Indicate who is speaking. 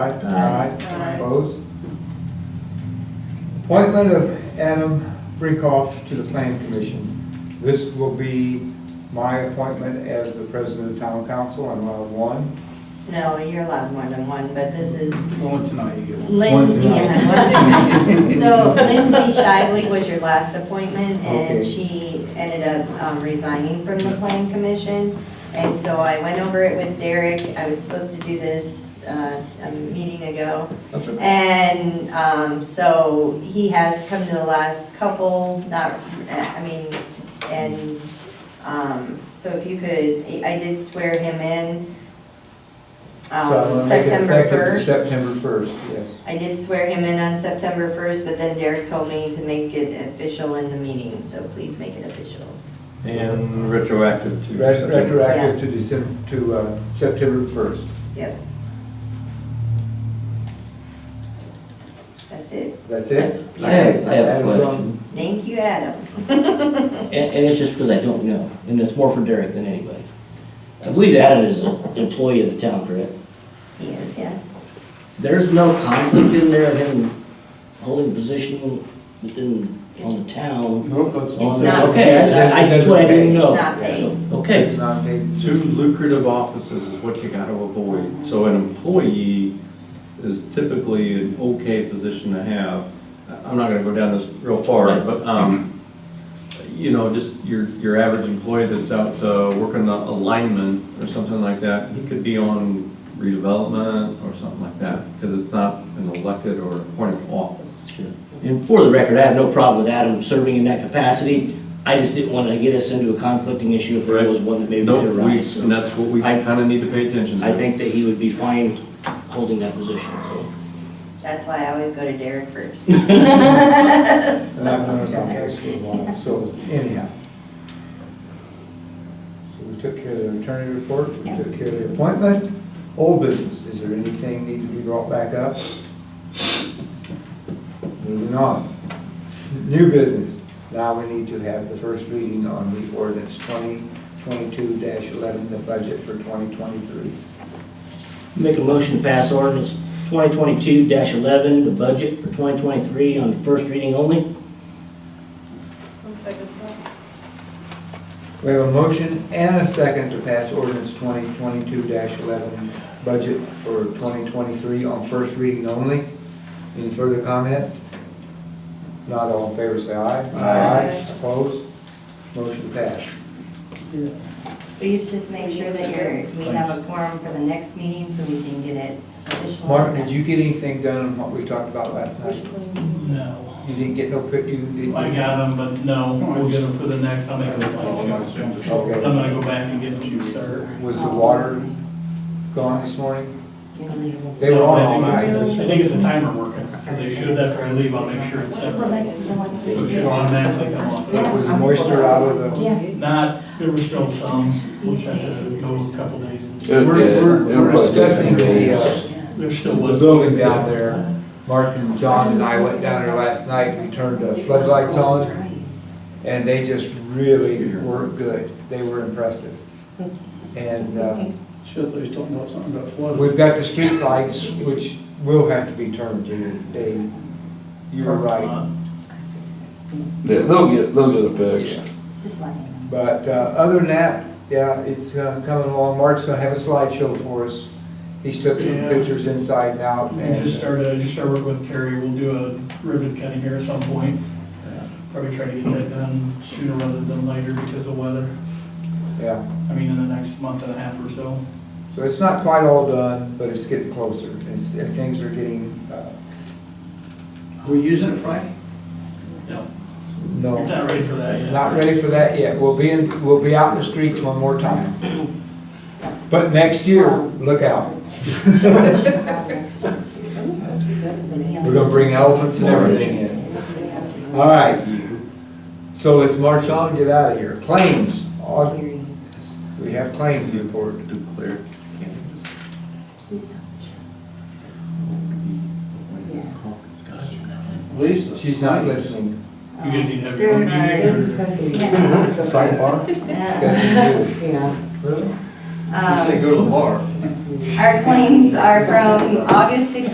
Speaker 1: Aye.
Speaker 2: Aye.
Speaker 1: Opposed? Appointment of Adam Freakoff to the Planning Commission. This will be my appointment as the president of town council on round one.
Speaker 2: No, you're allowed more than one, but this is
Speaker 3: Going tonight, you get one.
Speaker 1: One
Speaker 2: Lindsay.
Speaker 1: tonight.
Speaker 2: So Lindsay Shively was your last appointment,
Speaker 1: Okay.
Speaker 2: and she ended up um, resigning from the plan commission. And so I went over it with Derek, I was supposed to do this uh, a meeting ago.
Speaker 3: That's it.
Speaker 2: And um, so he has come to the last couple, not, I mean, and um, so if you could, I did swear him in
Speaker 1: So I'm
Speaker 2: um,
Speaker 1: gonna make it
Speaker 2: September
Speaker 1: effective
Speaker 2: first.
Speaker 1: September first, yes.
Speaker 2: I did swear him in on September first, but then Derek told me to make it official in the meeting, so please make it official.
Speaker 4: And retroactive to.
Speaker 1: Ret-
Speaker 4: September.
Speaker 1: Retroactive to December, to uh, September first.
Speaker 2: Yep. That's it.
Speaker 1: That's it?
Speaker 5: I have, I have a
Speaker 1: Adam's on.
Speaker 5: question,
Speaker 2: Thank you, Adam.
Speaker 5: and, and it's just because I don't know, and it's more for Derek than anybody. I believe Adam is an employee of the town, correct?
Speaker 2: Yes, yes.
Speaker 5: There's no conflict in there of him holding position within, on the town.
Speaker 3: Nope, that's
Speaker 5: on
Speaker 3: just
Speaker 5: the-
Speaker 2: not-
Speaker 5: Okay, I- I, that's what I didn't know.
Speaker 2: It's not paid.
Speaker 5: So,
Speaker 1: It's
Speaker 5: Okay,
Speaker 1: not taken.
Speaker 4: Two lucrative offices is what you gotta avoid. So an employee is typically an okay position to have. I'm not gonna go down this real far,
Speaker 5: Right.
Speaker 4: but, um, you know, just your, your average employee that's out, uh, working on alignment or something like that, he could be on redevelopment or something like that, because it's not an elected or appointed office.
Speaker 5: and for the record, I have no problem with Adam serving in that capacity, I just didn't want to get us into a conflicting issue if there
Speaker 4: Right.
Speaker 5: was one that maybe
Speaker 4: No,
Speaker 5: could
Speaker 4: we,
Speaker 5: arise. So
Speaker 4: and that's what we
Speaker 5: I-
Speaker 4: kinda need to pay attention to.
Speaker 5: I think that he would be fine holding that position, so.
Speaker 2: That's why I always go to Derek first.
Speaker 1: And I've known about that for a while, so anyhow. So we took care of the attorney report, we
Speaker 2: Yeah.
Speaker 1: took care of the appointment. Old business, is there anything need to be brought back up? Moving on. New business, now we need to have the first reading on the ordinance twenty twenty-two eleven, the budget for twenty twenty-three.
Speaker 5: Make a motion to pass ordinance 2022-11, the budget for 2023 on first reading only.
Speaker 6: I'll second that.
Speaker 1: We have a motion and a second to pass ordinance twenty twenty-two eleven, budget for twenty twenty-three on first reading only. Any further comment? Not all in favor, say aye.
Speaker 6: Aye.
Speaker 1: Opposed? Motion passed.
Speaker 2: Please just make sure that you're, we have a quorum for the next meeting so we can get it official.
Speaker 1: Mark, did you get anything done on what we talked about last night?
Speaker 7: No,
Speaker 1: You didn't get no, pic- you didn't?
Speaker 7: I got them, but no, we'll get them for the next, I'll make a selection. I'm
Speaker 1: Okay.
Speaker 7: gonna go back and get you, sir.
Speaker 1: Was the water
Speaker 2: Um,
Speaker 1: gone this morning? They were
Speaker 7: No,
Speaker 1: on
Speaker 7: I
Speaker 1: all
Speaker 7: think-
Speaker 1: night.
Speaker 7: I think it's the timer working, so they should, after I leave, I'll make sure it's separate. So it should automatically come off.
Speaker 2: um,
Speaker 1: Was the moisture out of the?
Speaker 7: Not, there was still some, we'll check it, go a couple days.
Speaker 1: We're,
Speaker 8: It- it-
Speaker 1: we're
Speaker 8: it
Speaker 1: we're
Speaker 8: was
Speaker 1: discussing the,
Speaker 8: different.
Speaker 1: uh,
Speaker 7: There still
Speaker 1: the
Speaker 7: was.
Speaker 1: building down there. Mark and John and I went down there last night, we turned the floodlights on, and they just really were good. They were impressive. And uh,
Speaker 3: Shit, they was talking about something about flooding.
Speaker 1: we've got the street lights, which will have to be turned in, Dave. You were right.
Speaker 7: Uh,
Speaker 8: Yeah, they'll get, they'll get it fixed.
Speaker 2: Just let me know.
Speaker 1: But uh, other than that, yeah, it's uh, coming along. Mark's gonna have a slideshow for us. He's took some
Speaker 7: Yeah.
Speaker 1: pictures inside and out.
Speaker 7: We
Speaker 1: and,
Speaker 7: just
Speaker 1: uh,
Speaker 7: started, I just started working with Kerry, we'll do a ribbon cutting here at some point. Probably try to get that done sooner rather than later because of weather,
Speaker 1: uh, Yeah.
Speaker 7: I mean, in the next month and a half or so.
Speaker 1: So it's not quite all done, but it's getting closer, It's- and things are getting, uh,
Speaker 3: We're using it Friday?
Speaker 7: No,
Speaker 1: no,
Speaker 7: you're not ready for that yet.
Speaker 1: not ready for that yet. We'll be in, we'll be out in the streets one more time. But next year, look out. We're gonna bring elephants and everything in. All right, so let's march on, and get out of here. Claims, Au- we have claims report.
Speaker 4: Declare candidacy.
Speaker 3: Lisa?
Speaker 1: She's not listening.
Speaker 7: You guys need to have your own
Speaker 9: They're, they're
Speaker 7: meeting. or-
Speaker 9: discussing.
Speaker 2: Yes.
Speaker 9: Sidebar?
Speaker 1: Discussing you.
Speaker 9: Yeah.
Speaker 1: Really?
Speaker 2: Um,
Speaker 3: go to the bar.
Speaker 2: Our claims are from August 16th